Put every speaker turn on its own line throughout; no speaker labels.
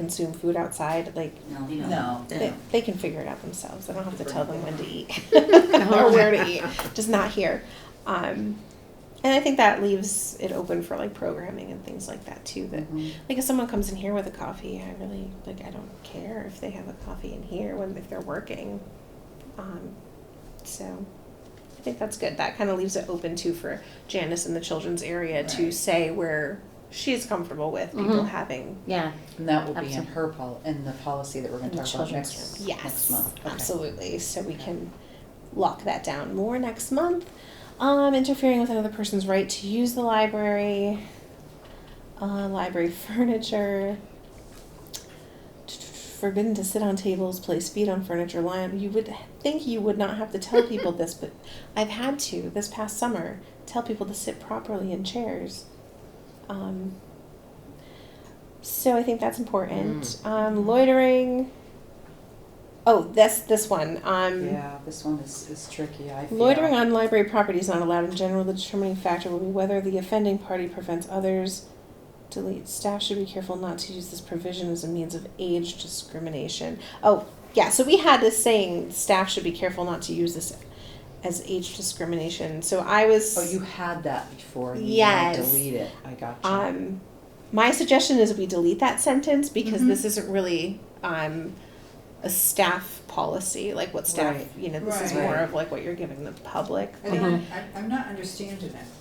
consume food outside, like
No, we don't.
No.
they, they can figure it out themselves. I don't have to tell them when to eat or
Oh.
where to eat. Just not here. Um, and I think that leaves it open for like programming and things like that too. That
Mhm.
like if someone comes in here with a coffee, I really like I don't care if they have a coffee in here when if they're working. Um, so I think that's good. That kind of leaves it open too for Janice in the children's area to
Right.
say where she's comfortable with people
Mhm.
having
Yeah.
And that will be in
Absolutely.
her pol, in the policy that we're gonna
In the
talk about
children's
next,
Yes,
next month. Okay.
absolutely. So we
Okay.
can lock that down more next month. Um, interfering with another person's right to use the library, uh, library furniture, forbidden to sit on tables, place feet on furniture, lie on. You would think you would not have to tell people this, but I've had to this past summer tell people to sit properly in chairs. Um, so I think that's important. Um, loitering. Oh, this this one. Um,
Yeah, this one is, is tricky, I feel.
Loitering on library property is not allowed in general. The determining factor will be whether the offending party prevents others. Delete. Staff should be careful not to use this provision as a means of age discrimination. Oh, yeah. So we had this saying staff should be careful not to use this as age discrimination. So I was.
Oh, you had that before, and you wanna
Yes.
delete it, I got you.
Um, my suggestion is we delete that sentence because
Mhm.
this isn't really um, a staff policy, like what staff,
Right.
you know, this is
Right.
more of like what you're giving the public.
I don't, I, I'm not understanding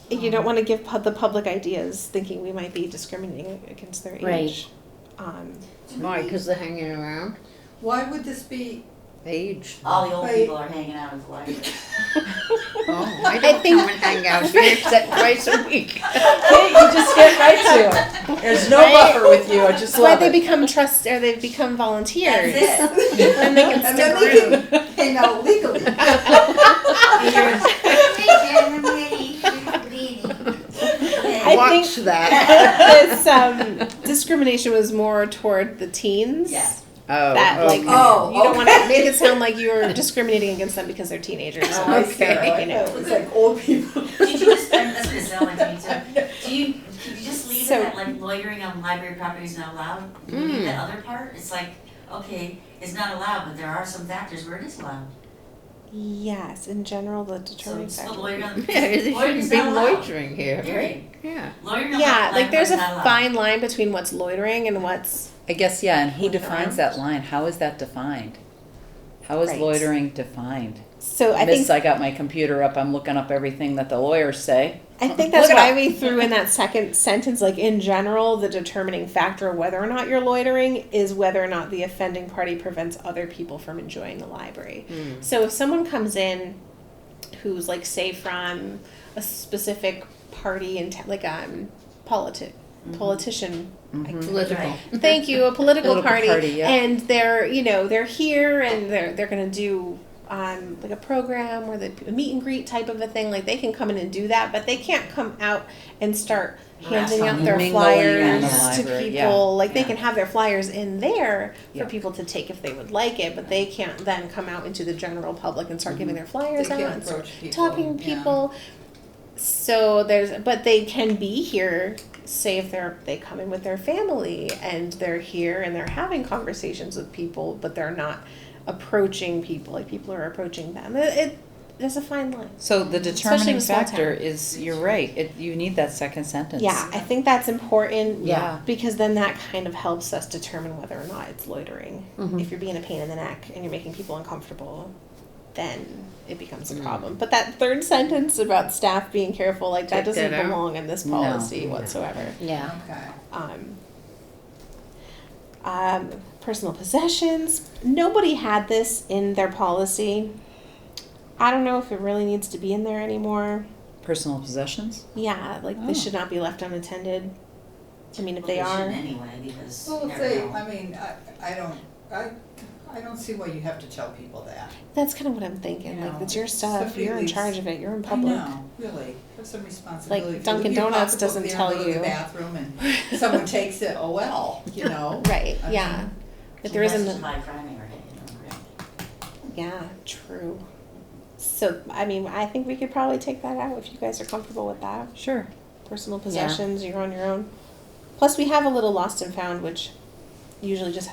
it. Um,
You don't want to give pub- the public ideas thinking we might be discriminating against their
Right.
age. Um,
Do
Why?
we-
Because they're hanging around.
Why would this be,
Age.
All the old
Right.
people are hanging out in the library.
Oh, I don't come and hang out here except twice a week.
Okay, you just get right to it. There's no buffer with you, I just
that's why
love
they
it.
become trust or they become volunteers.
That's
and they can
and
stick
then
around.
they can hang out legally.
I
Oh,
Watch
think-
that.
this um, discrimination was more toward the teens.
Yeah.
Oh,
that like
okay.
Oh,
you don't want to
okay.
make it sound like you're discriminating against them because they're teenagers.
Oh, I see.
Okay, you know.
It's like old people.
Did you just, and that's what it sounded like to me too. Do you, could you just leave it
So-
at like loitering on library property is not allowed? Leave
Hmm.
the other part? It's like, okay, it's not allowed, but there are some factors where it is allowed.
Yes, in general, the
So
determining
it's still
factor.
loitering on.
Yeah, there
loitering's
shouldn't be
not allowed.
loitering here, right?
Period.
Yeah.
Loitering on
Yeah, like
library
there's
is
a
not allowed.
fine line between what's loitering and what's
I guess, yeah, and who
Hanging
defines
around.
that line? How is that defined? How is
Right.
loitering defined?
so. I
Miss,
think
I got my computer up, I'm looking up everything that the lawyers say.
I think that's
Look it
why
up.
we threw in that second sentence. Like in general, the determining factor of whether or not you're loitering is whether or not the offending party prevents other people from enjoying the library. So if someone comes in who's like say from a specific party and t- like um politic politician
Mhm.
Political.
Right.
thank you a political,
Political
party,
party, yeah.
and they're you know they're here and they're they're going to do um, like a program where they a meet and greet type of a thing like they can come in and do that but they can't come out and start handing out their
Mingling
flyers
in the
to people
library, yeah,
like they
yeah.
can have their flyers in there for
Yeah.
people to take if they would like it but they can't then come out into the general public and start giving their
They
flyers out
can
and start
approach people.
talking
yeah.
people. So there's, but they can be here. Say if they're they come in with their family and they're here and they're having conversations with people, but they're not approaching people like people are approaching them. It, it there's a fine line.
So the
Especially in
determining
a small
factor is, you're right, it, you need that second sentence.
Yeah, I think that's important.
Yeah.
because then that kind of helps us determine whether or not it's loitering.
Mhm.
If you're being a pain in the neck and you're making people uncomfortable, then it becomes a problem. But that third sentence about staff being careful, like that
Take that
doesn't
out.
belong in this
No,
policy
no.
whatsoever.
Yeah.
Okay.
Um, um, personal possessions. Nobody had this in their policy. I don't know if it really needs to be in there anymore.
Personal possessions?
Yeah, like
Oh.
they should not be left unattended. I mean, if
Well,
they are,
shouldn't Anyway, because you
Well, if
never
they,
know.
I mean, I, I don't, I, I don't see why you have to tell people that.
that's kind of what I'm thinking. Like
Yeah.
it's your stuff.
Somebody
You're in
leaves-
charge of it. You're in public.
I know, really, have some responsibility. If you
Dunkin'
leave your
Donuts
pocketbook
doesn't
there and
tell
go to
you.
the bathroom and someone takes it, oh well, you know?
Right.
I
yeah.
mean-
But there
That's
isn't.
just
a-
my primary, you know, right?
Yeah. True. So I mean, I think we could probably take that out if you guys are comfortable with that.
Sure.
Personal possessions. You're on your own. Plus, we have a little lost and found, which usually just